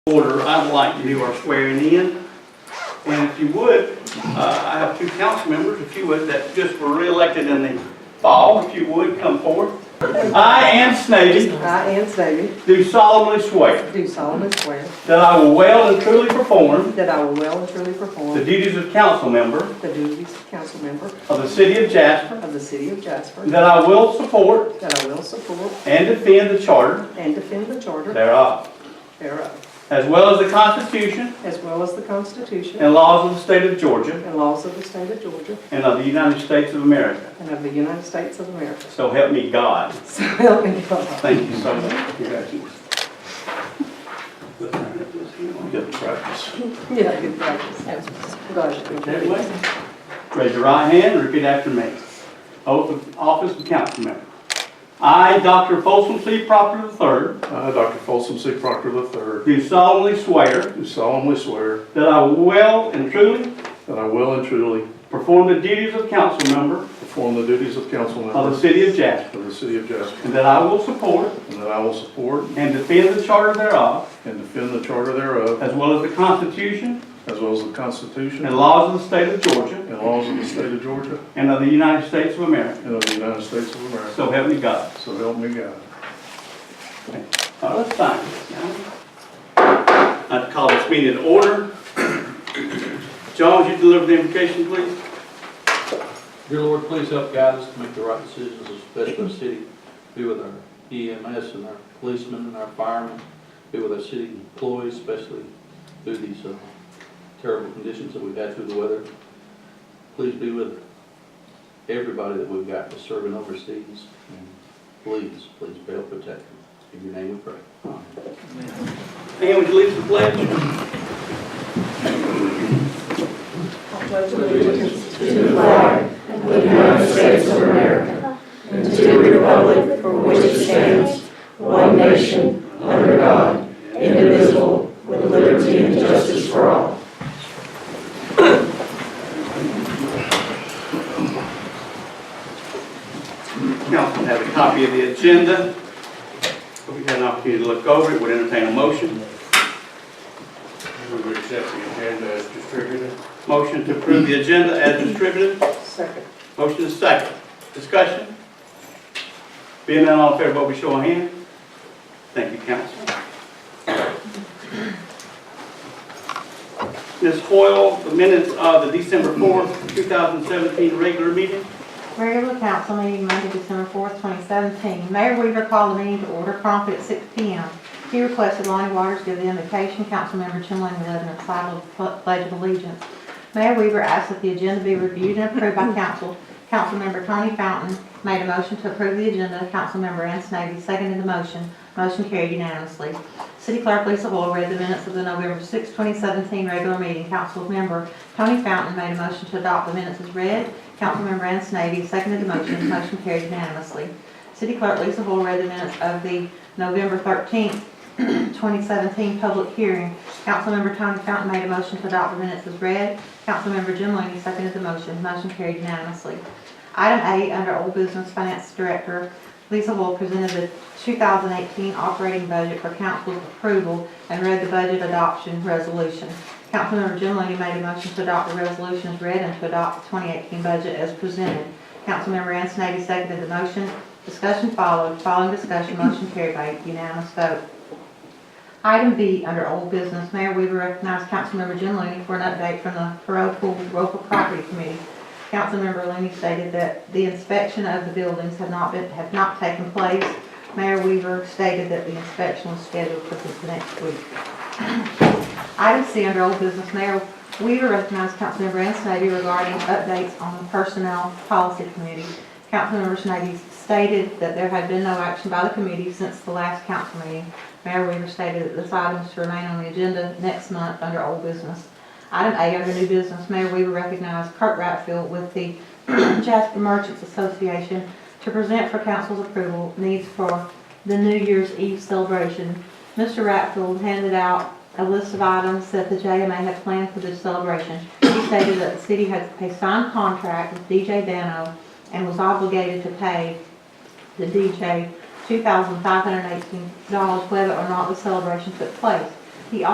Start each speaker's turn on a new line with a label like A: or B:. A: order, I'd like to do our swearing in. And if you would, uh, I have two council members, if you would, that just were reelected in the fall, if you would, come forward. I, Ann Snavy,
B: I, Ann Snavy,
A: do solemnly swear
B: do solemnly swear
A: that I will well and truly perform
B: that I will well and truly
A: the
B: perform
A: duties of council member
B: the duties of council member
A: of the city of Jasper,
B: of the city of Jasper,
A: that I will support
B: that I will support
A: and defend the charter
B: and defend the charter
A: thereof,
B: thereof,
A: as well as the Constitution
B: as well as the Constitution
A: and laws of the state of Georgia
B: and laws of the state of Georgia
A: and of the United States of America.
B: and of the United States of America.
A: So help me God.
B: So help me God.
A: Thank you so much. Congratulations. Good practice.
B: Yeah, good practice.
A: That
B: Congratulations.
A: way. Raise your right hand and repeat after me. Oath of office of council member. I, Dr. Folsom C. Proctor III,
C: I, Dr. Folsom C. Proctor III,
A: do solemnly swear
C: do solemnly swear
A: that I will well and truly
C: that I will and truly
A: perform the duties of council member
C: perform the duties of council
A: of the
C: member
A: city of Jasper,
C: of the city of Jasper,
A: and that I will support
C: and that I will support
A: and defend the charter thereof,
C: and defend the charter thereof,
A: as well as the Constitution
C: as well as the Constitution
A: and
C: and
A: laws of the state of Georgia
C: laws of the state of Georgia
A: and of the United States of America.
C: and of the United States of America.
A: So help me God.
C: So help me God.
A: Now, let's sign this now. I'd call this meeting to order. John, would you deliver the invocation, please?
D: Dear Lord, please help guide us to make the right decisions, especially our city. Be with our EMS and our policemen and our firemen. Be with our city employees, especially through these uh, terrible conditions that we've had through the weather. Please be with everybody that we've got that's serving overseas. And Please, please help protect them. In your name we pray. Amen.
A: And would you lead the pledge? Council have a copy of the agenda. If we had an opportunity to look over it, would entertain a motion.
C: Move we accept the agenda as distributed.
A: Motion to approve the agenda as distributed.
B: Second.
A: Motion is second. Discussion? Being none, all in favor, vote by show of hand. Thank you, council. Ms. Hoyle, the minutes of the December 4th, 2017 regular meeting.
E: Regular council meeting Monday, December fourth, twenty seventeen. Mayor Weaver called the meeting to order promptly at six P M. He requested Lonnie Waters give the invocation, Councilmember Chumlin led an recital of the pledge of allegiance. Mayor Weaver asked that the agenda be reviewed and approved by council. Councilmember Tony Fountain made a motion to approve the agenda. Councilmember Ann Snavy seconded the motion. Motion carried unanimously. City Clerk Lisa Hoyle read the minutes of the November 6, 2017 regular meeting. Council member Tony Fountain made a motion to adopt the minutes as read. Councilmember Ann Snavy seconded the motion. Motion carried unanimously. City Clerk Lisa Hoyle read the minutes of the November 13, 2017 public hearing. Councilmember Tony Fountain made a motion to adopt the minutes as read. Councilmember Jim Loney seconded the motion. Motion carried unanimously. Item A, under Old Business Finance Director, Lisa Wool presented the 2018 operating budget for council's approval and read the budget adoption resolution. Councilmember Jim Loney made a motion to adopt the resolution as read and to adopt the 2018 budget as presented. Councilmember Ann Snavy seconded the motion. Discussion followed. Following discussion, motion carried by unanimous vote. Item B, under old business, Mayor Weaver recognized Councilmember Jim Looney for an update from the Parole Pool Local Property Committee. Councilmember Looney stated that the inspection of the buildings had not been, had not taken place. Mayor Weaver stated that the inspection was scheduled for the next week. Item C, under old business, Mayor Weaver recognized Councilmember Ann Snavy regarding updates on the Personnel Policy Committee. Councilmember Snavy stated that there had been no action by the committee since the last council meeting. Mayor Weaver stated that this item is to remain on the agenda next month under old business. Item A, under new business, Mayor Weaver recognized Kurt Ratfield with the Jasper Merchants Association to present for council's approval needs for the New Year's Eve celebration. Mr. Ratfield handed out a list of items that the JMA had planned for this celebration. He stated that the city had a signed contract with DJ Dano and was obligated to pay the DJ $2,518 whether or not the celebration took place.